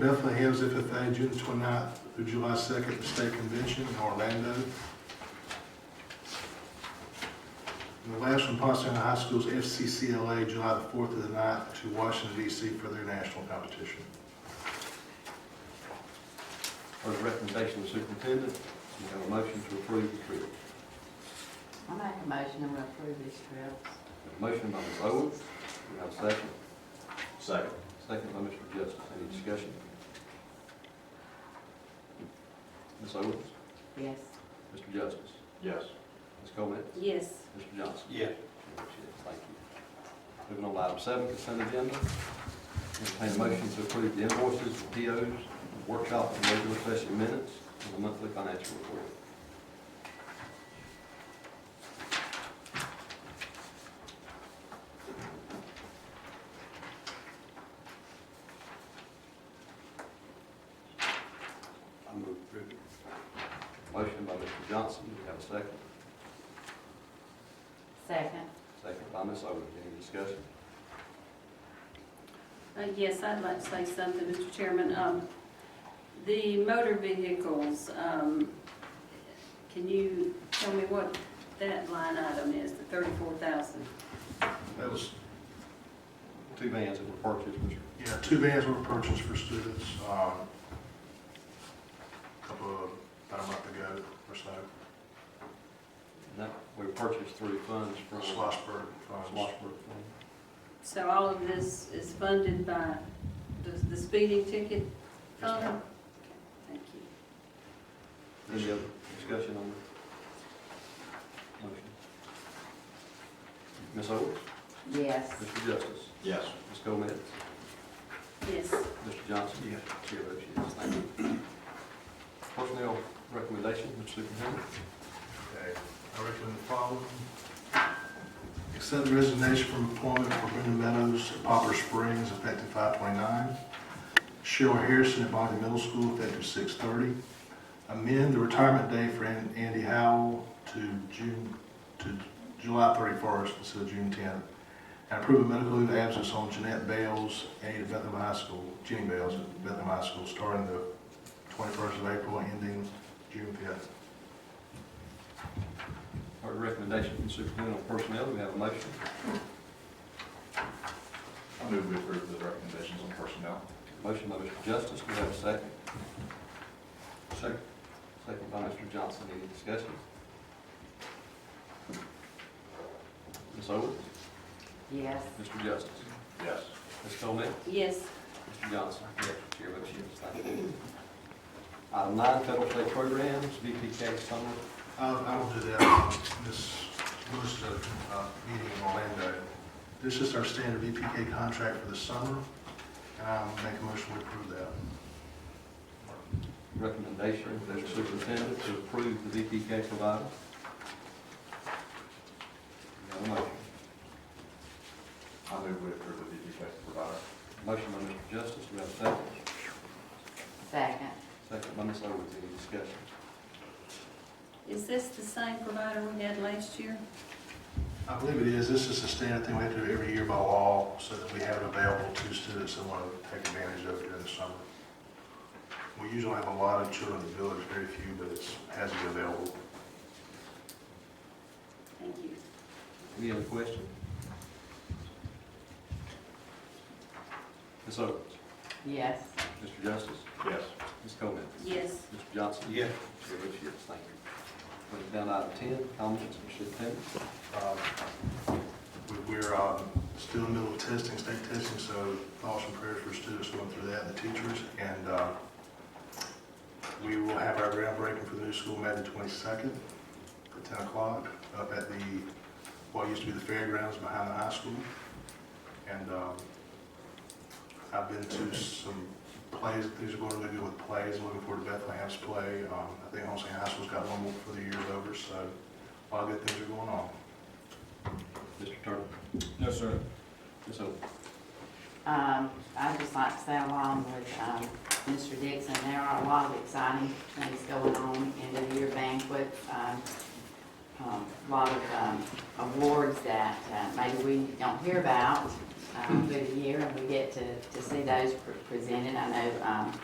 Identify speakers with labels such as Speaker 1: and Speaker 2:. Speaker 1: Bethlehem's FFA, June 29th through July 2nd, the state convention in Orlando. And the last one, Pottstown High School's FCCLA, July the 4th to the 9th to Washington DC for their national competition.
Speaker 2: Heard the recommendation of the superintendent, we have a motion to approve the trip.
Speaker 3: I make a motion to approve these trips.
Speaker 2: A motion by Ms. Owens, we have a second.
Speaker 4: Second.
Speaker 2: Second by Mr. Justice, any discussion? Ms. Owens,
Speaker 3: Yes.
Speaker 2: Mr. Justice,
Speaker 4: Yes.
Speaker 2: Ms. Coleman,
Speaker 3: Yes.
Speaker 2: Mr. Johnson.
Speaker 4: Yeah.
Speaker 2: Thank you. Moving on to item seven, consent agenda. Entertain a motion to approve the invoices, the POs, workshop and regular session minutes, and the monthly financial report. I move approval. Motion by Mr. Johnson, do we have a second?
Speaker 3: Second.
Speaker 2: Second by Ms. Owens, any discussion?
Speaker 5: Uh, Yes, I'd like to say something, Mr. Chairman. Um, The motor vehicles, um, can you tell me what that line item is, the 34,000?
Speaker 1: That was,
Speaker 2: Two vans that were purchased, Mr.
Speaker 1: yeah, two vans were purchased for students, um, a couple of, about a month ago or so,
Speaker 2: No, we purchased through funds from Sloshburg
Speaker 1: Slosberg funds.
Speaker 2: Fund.
Speaker 5: So all of this is funded by the the speeding ticket
Speaker 1: Yes,
Speaker 5: fund?
Speaker 1: ma'am.
Speaker 5: Thank you.
Speaker 2: Any other discussion on the motion? Ms. Owens,
Speaker 3: Yes.
Speaker 2: Mr. Justice,
Speaker 4: Yes.
Speaker 2: Ms. Gomez,
Speaker 5: Yes,
Speaker 2: Mr. Johnson. Yes. Chair votes yes, thank you. Personnel recommendation, Mr. Superintendent.
Speaker 1: Okay, I recommend the following. Accept the resignation from employment for Brenda Meadows at Popper Springs effective 5/29. Cheryl Harrison at Bonnie Middle School effective 6/30. Amend the retirement day for An- Andy Howell to June, to July 31st instead of June 10th. And approve a medical leave of absence on Jeanette Bales, aide at Bethlehem High School, Jenny Bales at Bethlehem High School, starting the 21st of April, ending June 5th.
Speaker 2: Heard the recommendation from the Superintendent on personnel, we have a motion.
Speaker 4: I move we approve the recommendations on personnel.
Speaker 2: Motion by Mr. Justice, we have a second. Second. Second by Mr. Johnson, any discussion? Ms. Owens,
Speaker 3: Yes.
Speaker 2: Mr. Justice,
Speaker 4: Yes.
Speaker 2: Ms. Coleman,
Speaker 5: yes,
Speaker 2: Mr. Johnson. Yes. Chair votes yes, thank you. Item nine, federal state programs, VPK summer.
Speaker 1: I'll, I'll do that. This Lewis is at a uh, meeting in Orlando. This is our standard VPK contract for the summer, and I'll make a motion to approve that.
Speaker 2: Recommendation from the superintendent to approve the VPK provider. We have a motion.
Speaker 4: I move we approve the DPK provider.
Speaker 2: Motion by Mr. Justice, we have a second.
Speaker 3: Second.
Speaker 2: Second by Ms. Owens, any discussion?
Speaker 5: is this the same provider we had last year?
Speaker 1: I believe it is. This is a standard thing we have to do every year by law, so that we have it available to students that want to take advantage of it during the summer. We usually have a lot of children in the village, very few, but it's, has to be available.
Speaker 5: Thank you.
Speaker 2: Any other question? Ms. Owens,
Speaker 3: Yes.
Speaker 2: Mr. Justice,
Speaker 4: Yes.
Speaker 2: Ms. Coleman,
Speaker 5: Yes,
Speaker 2: Mr. Johnson.
Speaker 4: Yeah.
Speaker 2: Chair votes yes, thank you. Put it down to item ten, comments from superintendent.
Speaker 1: Um, we- We're um, still in the middle of testing, state testing, so thoughts and prayers for students going through that and the teachers. And uh, we will have our groundbreaking for the new school May the 22nd at 10 o'clock up at the, what used to be the fairgrounds behind the high school. And um, I've been to some plays, things are going really good with plays, looking forward to Bethlehem's play. Um, I think Holmesy High School's got one more for the year's over, so a lot of good things are going on.
Speaker 2: Mr. Turner,
Speaker 4: No, sir.
Speaker 2: Ms. Owens.
Speaker 3: Um, I'd just like to say along with, um, Mr. Dixon, there are a lot of exciting things going on in the year banquet. Um, um, a lot of um, awards that uh, maybe we don't hear about um, through the year, and we get to, to see those pre- presented. I know um,